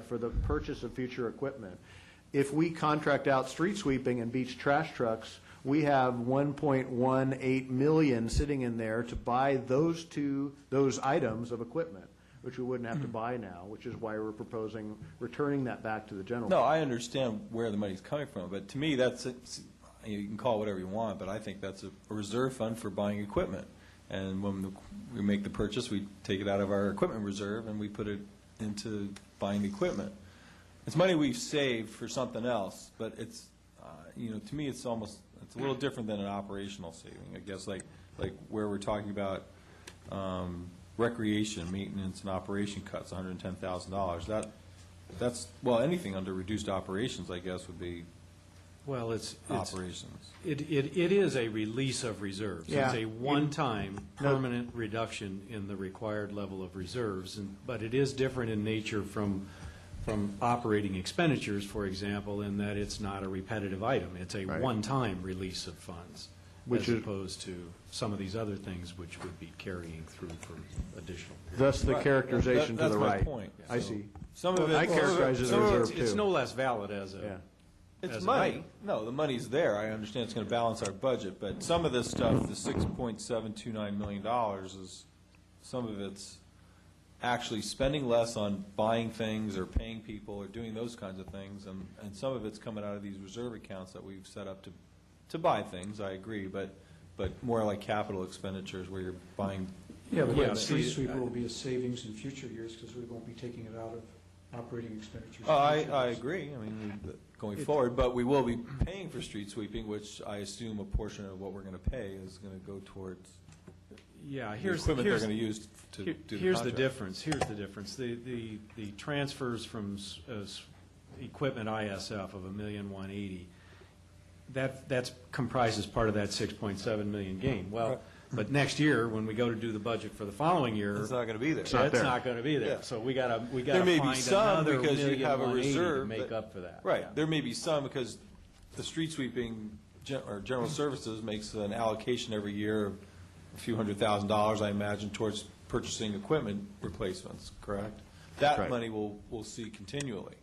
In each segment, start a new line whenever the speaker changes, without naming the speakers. for the purchase of future equipment. If we contract out street sweeping and beach trash trucks, we have 1.18 million sitting in there to buy those two, those items of equipment, which we wouldn't
Hmm.
have to buy now, which is why we're proposing returning that back to the general.
No, I understand where the money's coming from, but to me, that's, it's- you can call it whatever you want, but I think that's a reserve fund for buying equipment. And when the- we make the purchase, we take it out of our equipment reserve and we put it into buying equipment. It's money we've saved for something else, but it's, uh, you know, to me, it's almost, it's a little different than an operational saving. I guess like, like where we're talking about um, recreation, maintenance and operation cuts, $110,000. That, that's, well, anything under reduced operations, I guess, would be
Well, it's, it's,
operations.
it, it it is a release of reserves. It's
Yeah.
a one-time, permanent reduction in the required level of reserves, and, but it is different in nature from, from operating expenditures, for example, in that it's not a repetitive item. It's a
Right.
one-time release of funds,
Which
as
is-
opposed to some of these other things which would be carrying through for additional.
Thus the
Right.
characterization to
That-
the
that's my
right.
point.
I
So-
see.
Some of it.
I characterize it as
some of
reserve
It's- It's
too.
no less valid as
Yeah.
a,
It's
as an
money.
item.
No, the money's there. I understand it's going to balance our budget, but some of this stuff, the $6.729 million dollars is, some of it's actually spending less on buying things or paying people or doing those kinds of things, and, and some of it's coming out of these reserve accounts that we've set up to, to buy things, I agree, but, but more like capital expenditures where you're buying.
Yeah, but
Yeah,
the street
see,
sweeper
I-
will be a savings in future years because we won't be taking it out of operating expenditures.
Oh, I, I agree, I mean, we- going
It-
forward, but we will be paying for street sweeping, which I assume a portion of what we're going to pay is going to go towards
yeah,
the
here's,
equipment they're
here's,
going to use to do the
Here-
contract.
Here's the difference, here's the difference. The, the, the transfers from s- uh, s- equipment ISF of a million one eighty, that, that's comprises part of that six point seven million gain. Well,
Right.
but next year, when we go to do the budget for the following year,
It's not going to be there.
that's
not there.
not going to be
Yeah.
there. So we gotta, we gotta
There may be
find
some
another
because you
million
have a
one eighty to
reserve
make
that-
up for that. Yeah.
Right, there may be some, because the street sweeping, gen- or general services makes an allocation every year of a few hundred thousand dollars, I imagine, towards purchasing equipment replacements, correct?
right.
That money we'll, we'll see continually.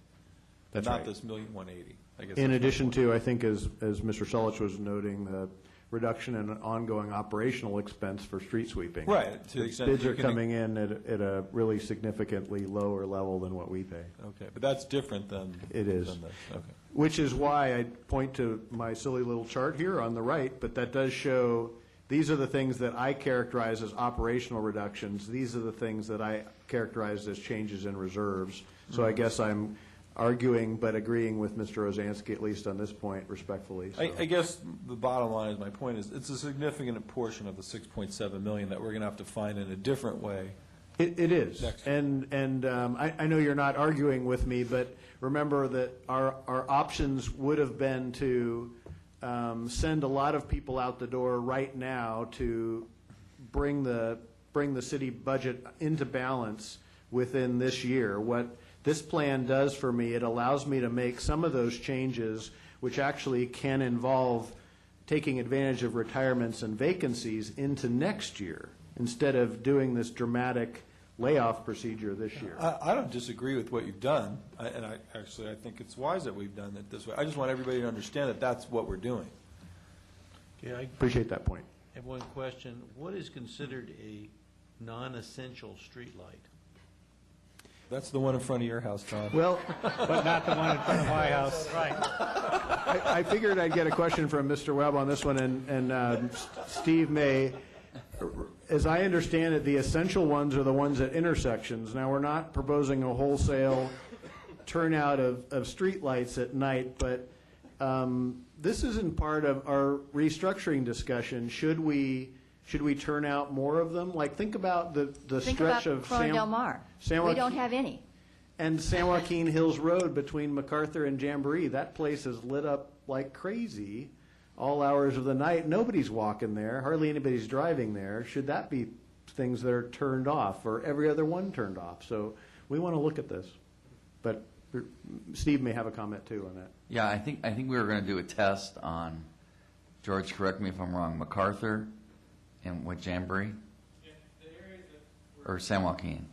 That's
Not
right.
this million one eighty, I guess.
In
that's my
addition
point.
to, I think, as, as Mr. Solich was noting, the reduction in ongoing operational expense for street sweeping.
Right, to the extent
Bids
you
are
can-
coming in at, at a really significantly lower level than what we pay.
Okay, but that's different than.
It is.
than this, Okay.
Which is why I point to my silly little chart here on the right, but that does show, these are the things that I characterize as operational reductions. These are the things that I characterized as changes in reserves. So
Mm-hmm.
I guess I'm arguing but agreeing with Mr. Ozansky, at least on this point, respectfully. so.
I, I guess the bottom line is, my point is, it's a significant portion of the 6.7 million that we're going to have to find in a different way.
It, it is.
Next.
And, and um, I, I know you're not arguing with me, but remember that our, our options would have been to um, send a lot of people out the door right now to bring the, bring the city budget into balance within this year. What this plan does for me, it allows me to make some of those changes, which actually can involve taking advantage of retirements and vacancies into next year, instead of doing this dramatic layoff procedure this year.
I, I don't disagree with what you've done, I- and I, actually, I think it's wise that we've done it this way. I just want everybody to understand that that's what we're doing.
Yeah, I
Appreciate that point.
have one question. What is considered a non-essential streetlight?
That's the one in front of your house, Tom.
Well,
But not the one in front of my house.
I I figured I'd get a question from Mr. Webb on this one, and, and um, S- Steve may. As I understand it, the essential ones are the ones at intersections. Now, we're not proposing a wholesale turnout of, of streetlights at night, but um, this isn't part of our restructuring discussion. Should we, should we turn out more of them? Like, think about the, the
Think
stretch
about
of.
Corona
San-
Del Mar.
San
We
Joaqu-
don't have any.
and San Joaquin Hills Road between MacArthur and Jamboree, that place is lit up like crazy all hours of the night. Nobody's walking there, hardly anybody's driving there. Should that be things that are turned off or every other one turned off? So we want to look at this. But er, Steve may have a comment too on that.
Yeah, I think, I think we were going to do a test on, George, correct me if I'm wrong, MacArthur and what, Jamboree? Or San Joaquin?